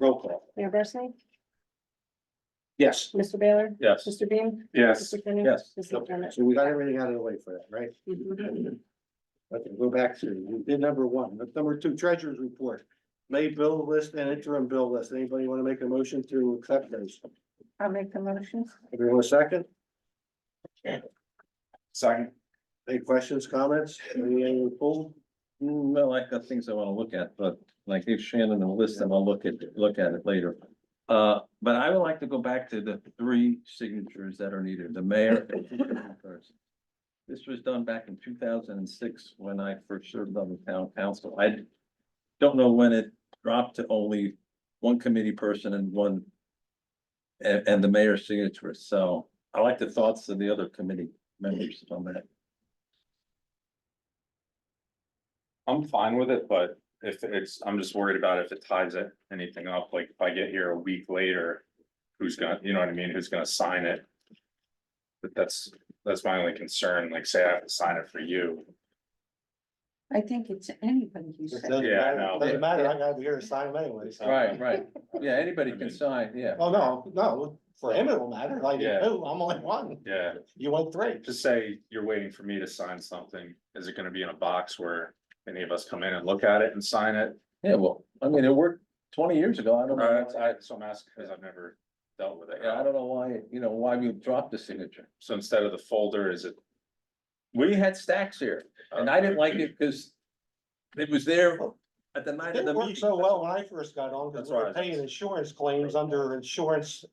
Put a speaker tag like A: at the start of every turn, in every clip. A: Roll call.
B: Mayor Barsney?
A: Yes.
B: Mr. Baylor?
C: Yes.
B: Mr. Beam?
C: Yes.
B: Mr. Kenny?
C: Yes.
B: Mr. McDermott?
A: So we got everything out of the way for that, right?
B: Mhm.
A: Okay, go back to, we did number one, But number two, treasurer's report. May bill list and interim bill list. Anybody want to make a motion to accept those?
B: I'll make the motion.
A: Everyone a second?
C: Second.
A: Any questions, comments? Any other poll?
C: mm, Well, I got things I wanna look at, but like if Shannon will list them, I'll look at, look at it later. Uh, but I would like to go back to the three signatures that are needed, the mayor. and the chairman first. This was done back in two thousand and six when I first served on the town council. I don't know when it dropped to only one committee person and one and, and the mayor's signature, so I like the thoughts of the other committee members on that.
D: I'm fine with it, but if it's, I'm just worried about if it ties it, anything up, like if I get here a week later. Who's gonna, you know what I mean, who's gonna sign it? But that's, that's my only concern, like say I have to sign it for you,
E: I think it's anybody who
A: It
E: said.
A: Doesn't
D: Yeah,
A: matter,
D: no,
A: Doesn't
D: but-
A: matter, I gotta be here to sign anyways.
C: Right, right. Yeah, anybody can sign, yeah.
A: Oh, no, no, for him it will matter, like,
D: Yeah.
A: oh, I'm only one,
D: yeah,
A: you want three.
D: just say you're waiting for me to sign something, is it gonna be in a box where? Any of us come in and look at it and sign it,
C: Yeah, well, I mean, it worked twenty years ago. I don't
D: Or
C: know.
D: Uh, that's-
C: why-
D: I, so I'm asking, cause I've never dealt with it.
C: Yeah, I don't know why, you know, why we dropped the signature.
D: So instead of the folder, is it?
C: We had stacks here and I didn't like
D: uh,
C: it because it was there at the night of the
A: It
C: meeting.
A: worked so well when I first got on, because
D: That's
A: we were
D: right.
A: paying insurance claims under insurance,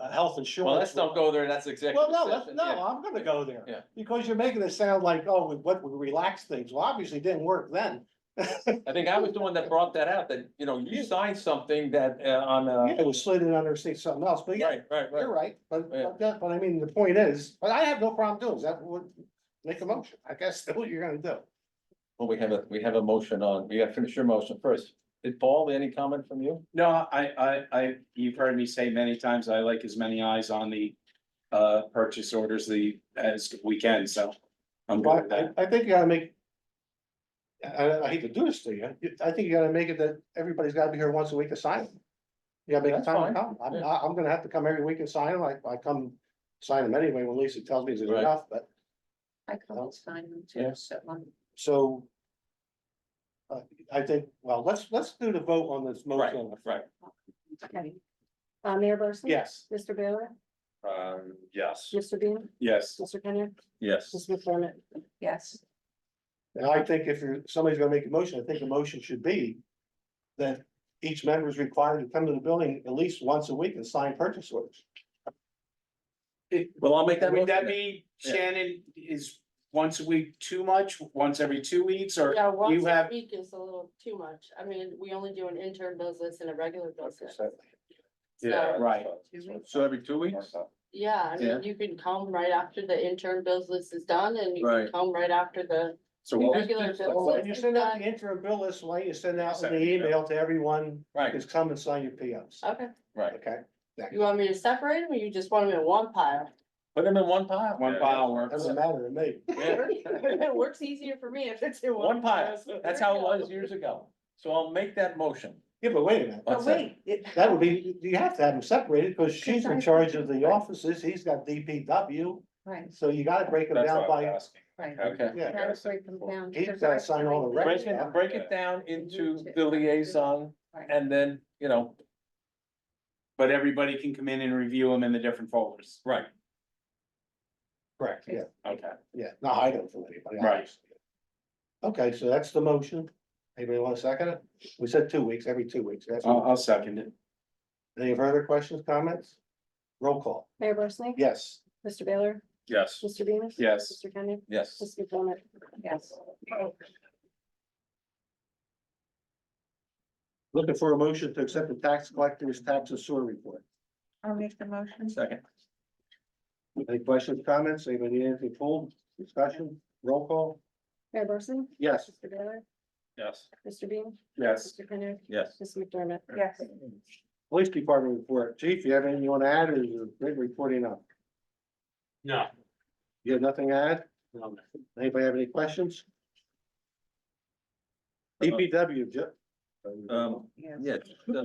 A: uh, health insurance.
C: Well, let's not go there. That's executive.
A: Well, no, let's,
C: session,
A: no,
C: yeah.
A: I'm gonna go there.
C: Yeah.
A: Because you're making it sound like, oh, we, what, we relaxed things. Well, obviously it didn't work then.
C: I think I was the one that brought that out, that, you know, you signed something that uh, on, uh,
A: It was slid in under seat something else, but yeah,
C: right, right,
A: you're
C: right.
A: right. But,
C: Yeah.
A: but that- but I mean, the point is, but I have no problem doing, is that would make a motion. I guess that's what you're gonna do.
C: Well, we have a, we have a motion on, you gotta finish your motion first. Did Paul, any comment from you?
F: No, I, I, I, you've heard me say many times, I like as many eyes on the, uh, purchase orders the, as we can, so. I'm good with
A: But I,
F: that.
A: I think you gotta make. I- I, I hate to do this to you. You- I think you gotta make it that everybody's gotta be here once a week to sign. them. You gotta make
C: That's
A: time
C: fine.
A: to come. I'm,
C: Yeah.
A: I- I'm gonna have to come every week and sign them. I, I come sign them anyway when Lisa tells me it's
C: Right.
A: enough, but.
E: I called sign them
C: Yeah.
E: too, so um,
A: So. Uh, I think, well, let's, let's do the vote on this motion.
C: right.
B: Okay. Uh, Mayor Barsney?
A: Yes,
B: Mr. Baylor?
D: Um, yes,
B: Mr. Beam?
D: yes,
B: Mr. Kenny?
C: Yes.
B: Mr. McDermott?
E: yes,
A: and I think if you're, somebody's gonna make a motion, I think the motion should be. That each member is required to come to the building at least once a week and sign purchase orders.
C: Well, I'll make that
F: Would that
C: motion.
F: be,
C: Yeah.
F: Shannon, is once a week too much, once every two weeks, or
G: Yeah, once a
F: have-
G: week is a little too much. I mean, we only do an intern bills list and a regular bills list.
D: yeah.
G: So,
F: Right.
C: So every two weeks?
G: yeah, I
C: Yeah.
G: mean, you can come right after the intern bills list is done and you
C: Right.
G: can come right after the
D: So what,
G: regular
C: just-
G: bills
A: Well,
G: list
A: When you
G: is
A: send out
G: done.
A: the interim bill list, why don't you send out the email to everyone
C: Right,
A: who's come and sign your POs,
G: Okay,
C: right.
A: okay?
G: you want me to separate them or you just want them in one pile?
C: Put them in one pile.
F: one
D: Yeah.
F: file works?
A: Doesn't matter to me.
C: Yeah.
G: It works easier for me if it's in
C: One
G: one
C: pile.
G: pile.
C: That's how it was years ago. So I'll make that motion.
A: Yeah, but wait a minute.
B: Oh,
E: but
C: What's that?
E: wait. it-
A: That would be, you have to have them separated, because she's in charge of the offices, he's got DPW,
E: Right,
A: so you gotta break them
D: that's
A: down
D: what I
A: by,
D: was asking.
E: right.
D: Okay.
C: Okay.
A: yeah.
E: That was break them down.
A: He's
E: because
A: gotta
E: I
A: sign all the
E: signed
C: Break
A: records
E: them.
C: it, break it down into the liaison
E: Right.
C: and then, you know,
F: But everybody can come in and review them in the different folders.
C: right.
A: Correct, yeah,
F: Okay.
A: yeah, no, I don't feel anybody.
F: Right.
A: obviously. Okay, so that's the motion, anybody want to second it? We said two weeks, every two weeks, that's,
F: I'll, I'll second it.
A: any further questions, comments? Roll call,
B: Mayor Barsney?
A: yes,
B: Mr. Baylor?
D: Yes,
B: Mr. Beam?
F: Yes.
B: Mr. Kenny?
C: Yes.
B: Mr. McDermott?
E: Yes.
A: looking for a motion to accept the tax collector's tax and sewer report.
E: I'll make the motion.
C: Second.
A: Any questions, comments, anybody need anything pulled, discussion, roll call,
B: Mayor Barsney?
A: yes,
B: Mr. Baylor?
D: yes,
B: Mr. Beam?
F: Yes.
B: Mr. Kenny?
C: Yes.
B: Mr. McDermott?
E: Yes.
A: police department report, chief, you have anything you want to add, or is it big reporting up?
F: No.
A: You have nothing to add? Anybody have any questions? DPW, Jeff?
C: Um,
E: Yes.
C: yeah, uh, the-